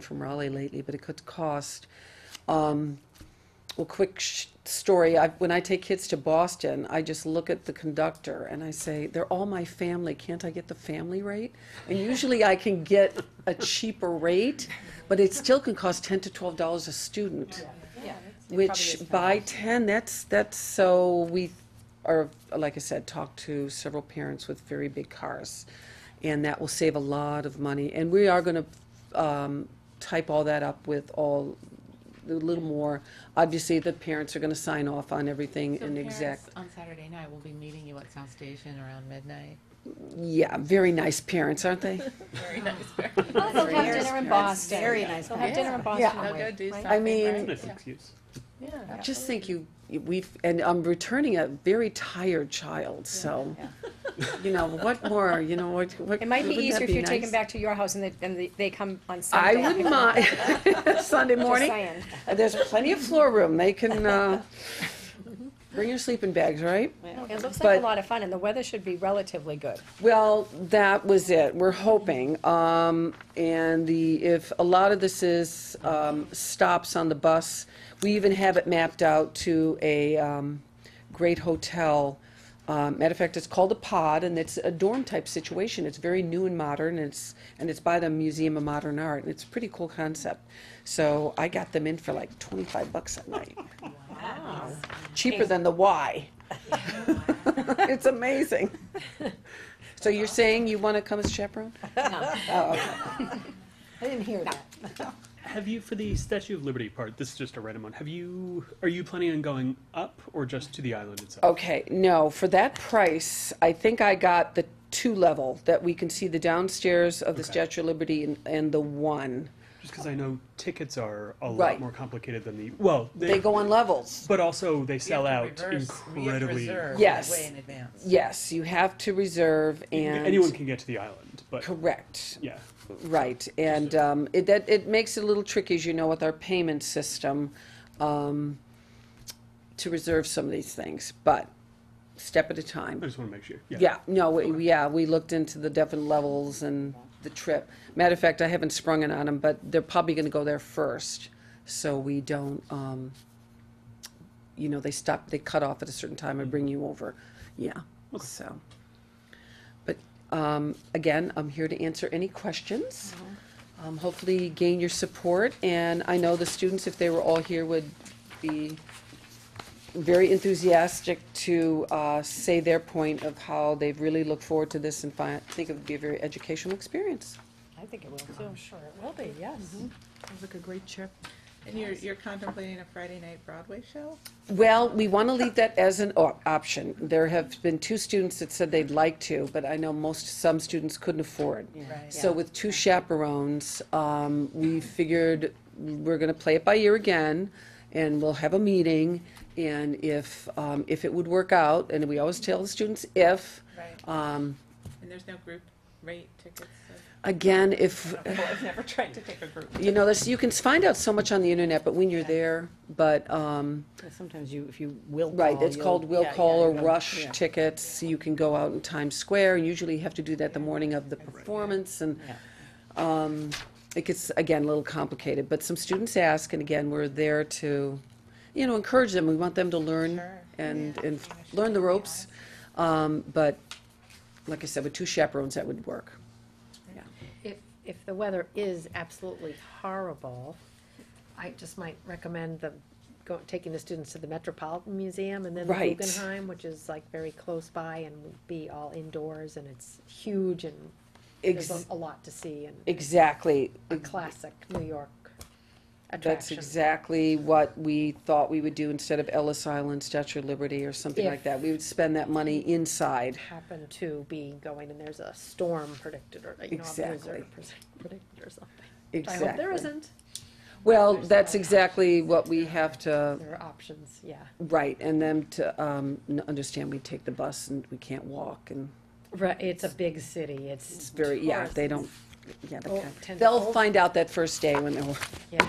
from Raleigh lately, but it could cost. Um, well, quick sh- story. I, when I take kids to Boston, I just look at the conductor and I say, "They're all my family. Can't I get the family rate?" And usually, I can get a cheaper rate, but it still can cost ten to twelve dollars a student. Which by ten, that's that's so we are like I said, talked to several parents with very big cars, and that will save a lot of money. And we are going to um, type all that up with all a little more. Obviously, the parents are going to sign off on everything So and parents exact. On Saturday night, we'll be meeting you at South Station around midnight. Yeah, very nice parents, aren't they? Very nice. Oh, they'll have dinner in That's Boston. very nice They'll have dinner in Boston. Yeah. They'll go Wait, do wait. something. I mean- right? Nice excuse. Yeah. Just think, you we've and I'm returning a very tired child, so you know what more? You know what? what It might be wouldn't that easier if you take them nice? back to your house and they, and they- they come on I Sunday. wouldn't mind Sunday Just morning. saying. Uh, There's plenty of floor room. They can, uh, bring your sleeping bags, right? It looks like But- a lot of fun and the weather should be relatively good. Well, that was it. We're hoping. Um, and the, if a lot of this is, um, stops on the bus, we even have it mapped out to a, um, great hotel. Um, matter of fact, it's called a pod and it's a dorm type situation. It's very new and modern. and It's, and it's by the Museum of Modern Art and it's a pretty cool concept. So I got them in for like twenty-five bucks a night. Cheaper than the Y. It's amazing. So you're saying you want to come as chaperone? I didn't hear that. Have you for the Statue of Liberty part? This is just a random one. Have you? Are you planning on going up or just to the island itself? Okay, no, for that price, I think I got the two level, that we can see the downstairs of the Okay. Statue of Liberty and, and the one. Just because I know tickets are a Right. lot more complicated than the well. They, They go on levels. but also they sell We have to reverse- out we have to incredibly. reserve Yes. Way in advance. Yes, you have to reserve and. Anyone can get to the island, but Correct. yeah, Right, and um, it, that, it makes it a little tricky, as you know, with our payment system, um, to reserve some of these things, but step at a time. I just want to make sure. Yeah. Yeah, no, we, yeah, we looked into the different levels and the trip. Matter of fact, I haven't sprung it on them, but they're probably gonna go there first, so we don't, um, you know, they stop, they cut off at a certain time and bring you over, yeah, so. But, um, again, I'm here to answer any questions. Um, hopefully gain your support, and I know the students, if they were all here, would be very enthusiastic to uh, say their point of how they really look forward to this and find, think it would be a very educational experience. I think it will too. I'm sure it will be, yes. And you're, you're contemplating a Friday night Broadway show? Well, we want to leave that as an o- option. There have been two students that said they'd like to, but I know most, some students couldn't afford. Right. So with two chaperones, um, we figured we're gonna play it by ear again, and we'll have a meeting, and if, um, if it would work out, and we always tell the students if, Right. um, And there's no group rate tickets? again, if, I've never tried to take a group. You know, this, you can find out so much on the internet, but when you're there, but, um, Sometimes you, if you will call. right, it's you'll- called will yeah, call yeah, or yeah. rush Yeah. tickets. You can go out in Times Square, and usually you have to do that the morning of the performance, and, Yeah. um, it gets, again, a little complicated, but some students ask, and again, we're there to, you know, encourage them. We want them to learn Sure. and, Yeah. and Yeah, sure. learn the ropes. Um, but, like I said, with two chaperones, that would work. If, if the weather is absolutely horrible, I just might recommend the, go, taking the students to the Metropolitan Museum and then the Right. Guggenheim, which is like very close by and would be all indoors and it's huge and there's Ex- a a lot to see and Exactly. a classic New York That's attraction. exactly what we thought we would do instead of Ellis Island, Statue of Liberty, or something like If- that. We would spend that money inside. Happen to be going and there's a storm predicted or, you know, a blizzard predicted or something. I Exactly. hope there isn't. Well, that's exactly what we have to, There are options, yeah. right, and them to um, n- understand we take the bus and we can't walk, and Right, it's a big city, it's. it's very, yeah, they don't, yeah, they Oh, can't- tend to they'll hold- find out that first day when they're, Yeah.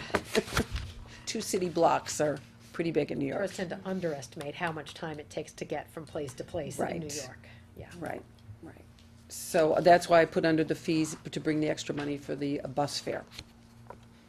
two city blocks are pretty big in New York. Tourists tend to underestimate how much time it takes to get from place to place in New Right. York. Yeah. Right, right. So that's why I put under the fees to bring the extra money for the uh, bus fare.